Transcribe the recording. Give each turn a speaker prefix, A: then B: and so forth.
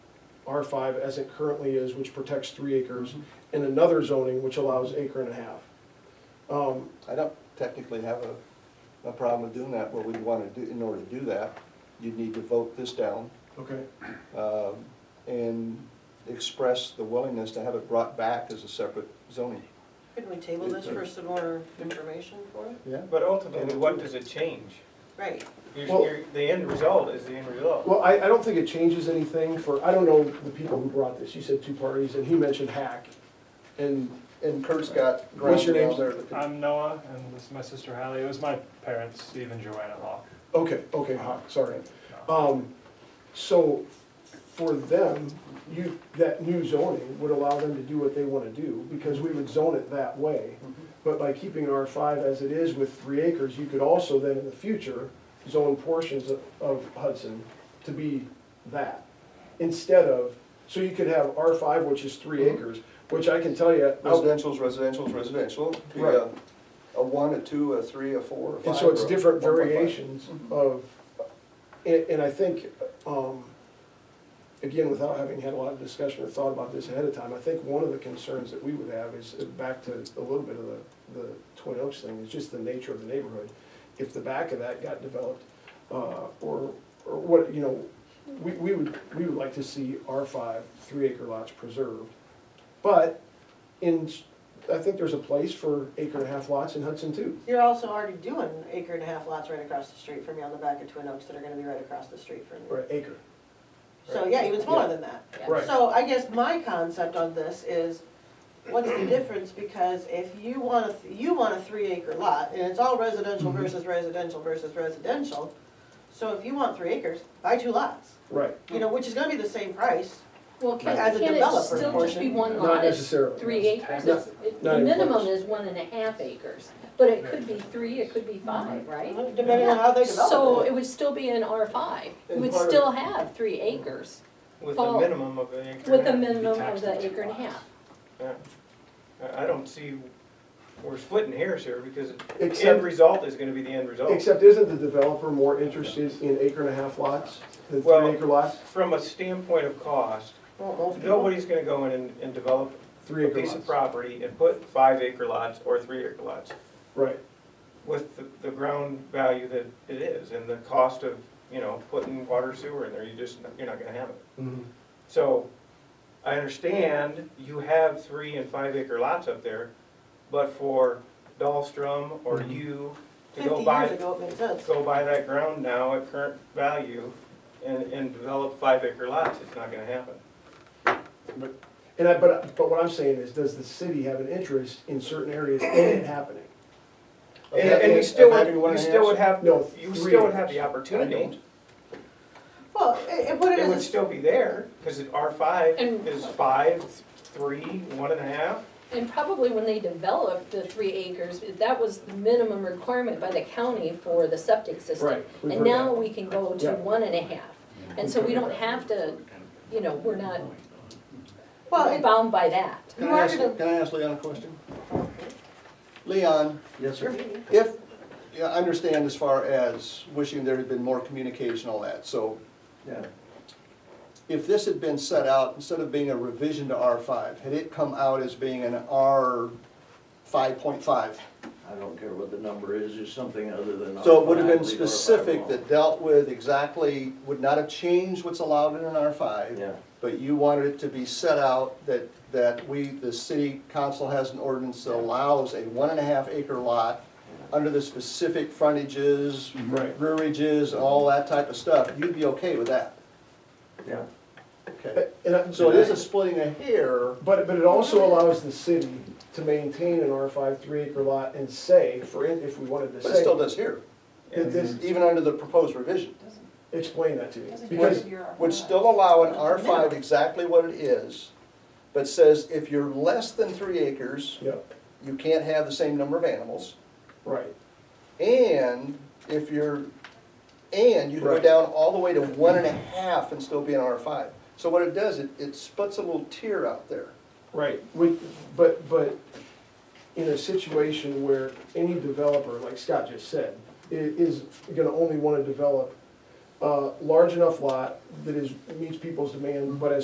A: R five as it currently is, which protects three acres, and another zoning which allows acre and a half. Um,
B: I don't technically have a, a problem with doing that, what we'd wanna do, in order to do that, you'd need to vote this down,
A: okay,
B: um, and express the willingness to have it brought back as a separate zoning.
C: Could we table this for some more information for it?
B: Yeah.
D: But ultimately, what does it change?
C: Right,
D: Your-
A: Well-
D: your- The end result is the end result.
A: well, I, I don't think it changes anything for, I don't know the people who brought this, you said two parties, and he mentioned hack, and,
B: And Kurt's got
A: What's
B: ground
A: your
B: rules
A: name?
B: there.
E: I'm Noah, and this is my sister Hallie. It was my parents, Steve and Joanna Locke.
A: okay, okay, hack, sorry. Um, so for them, you, that new zoning would allow them to do what they wanna do, because we would zone it that way. But by keeping R five as it is with three acres, you could also then in the future zone portions of- of Hudson to be that. Instead of, so you could have R five, which is three acres, which I can tell you.
B: Oh. Residential's residential's residential, Be a-
A: Right.
B: a one, a two, a three, a four, a five. Mm-hmm.
A: And so it's
B: or a
A: different
B: 1.5.
A: variations of, and, and I think, um, again, without having had a lot of discussion or thought about this ahead of time, I think one of the concerns that we would have is, uh, back to a little bit of the, the Twin Oaks thing, is just the nature of the neighborhood. If the back of that got developed, uh, or, or what, you know, we, we would, we would like to see R five, three acre lots preserved. But in, s- I think there's a place for acre and a half lots in Hudson too.
C: you're also already doing acre and a half lots right across the street from you on the back of Twin Oaks that are gonna be right across the street from
A: Or
C: you.
A: an acre.
C: So, yeah, even smaller than that.
A: Right.
C: So I guess my concept on this is, what's the difference, because if you want a, th- you want a three acre lot, and it's all residential
A: Mhm.
C: versus residential versus residential, so if you want three acres, buy two lots,
A: Right,
C: you know, which is gonna be the same price,
F: Well, can,
C: As a
F: can it
C: developer
F: still just be
C: portion.
F: one
A: not
F: lot, it's
A: necessarily.
F: three acres,
A: No,
F: it's, it-
A: not
F: the
A: even
F: minimum
A: close.
F: is one and a half acres, but it could be three, it could be five, right?
C: depending on how they
F: So
C: develop it.
F: it would still be an R five, it
B: And
F: would
B: part of-
F: still have three acres
D: With a
F: Well,
D: minimum of an acre.
F: with
D: and
F: a
D: a half.
F: minimum of
E: taxed
F: the
E: at two
F: acre and a
E: lots.
F: half.
D: I I don't see, we're splitting hairs here because the
A: Except-
D: end result is gonna be the end result.
A: Except isn't the developer more interested in acre and a half lots than three
D: Well-
A: acre lots?
D: From a standpoint of cost,
C: Well, most people-
D: nobody's gonna go in and- and develop
A: Three
D: a
A: acre
D: piece of
A: lots,
D: property and put five acre lots or three acre lots
A: right.
D: with the, the ground value that it is and the cost of, you know, putting water sewer in there, you just, you're not gonna have it.
B: Mm-hmm.
D: So, I understand you have three and five acre lots up there, but for Dahlstrom or
B: Mm-hmm.
A: Mhm.
D: you to
C: Fifty
D: go
C: years
D: buy,
C: ago, it made sense.
D: go buy that ground now at current value and, and develop five acre lots, it's not gonna happen.
A: And I, but, but what I'm saying is, does the city have an interest in certain areas in it happening?
B: Of
D: And,
B: having-
D: and you still
B: of having one and
D: would, you
B: a
D: still
B: half?
D: would have,
A: No,
D: you
A: three
D: still would have the
B: I
D: opportunity,
B: don't.
C: Well, and and put it
D: it would
C: as, a-
D: still be there, cause it R five
F: And-
D: is five, three, one and a half.
F: And probably when they developed the three acres, that was the minimum requirement by the county for the septic system.
A: Right, we've
F: And
A: heard
F: now
A: that.
F: we can go to
A: Yeah.
F: one and a half, and so we don't have to, you know, we're not
C: well, it-
F: bound by that.
B: Can
C: You
B: I
C: are
B: ask,
C: gonna-
B: can I ask Leon a question? Leon,
A: Yes, sir.
B: if, yeah, I understand as far as wishing there had been more communication, all that, so
A: Yeah.
B: if this had been set out, instead of being a revision to R five, had it come out as being an R five point five?
G: I don't care what the number is, it's something other than.
B: So it would have been
G: automatically or by
B: specific that
G: law.
B: dealt with exactly, would not have changed what's allowed in an R five.
G: Yeah.
B: But you wanted it to be set out that, that we, the city council has an ordinance that allows a one and a half acre lot under the specific frontages,
A: Right.
B: rearages, and all that type of stuff, you'd be okay with that,
G: Yeah.
B: okay?
A: And I-
B: So it is a splitting a hair,
A: But, but it also allows the city to maintain an R five, three acre lot and say, for, in- if we wanted to
B: but it
A: say,
B: still does here,
A: that this,
B: even under the proposed revision.
A: explain that to me. Because,
B: would still allow an R five exactly what it is, but says if you're less than three acres,
A: yeah,
B: you can't have the same number of animals.
A: right,
B: And if you're, and you go
A: Right.
B: down all the way to one and a half and still be an R five. So what it does, it, it splits a little tier out there.
A: right. We, but, but in a situation where any developer, like Scott just said, i- is gonna only wanna develop a large enough lot that is, meets people's demand, but as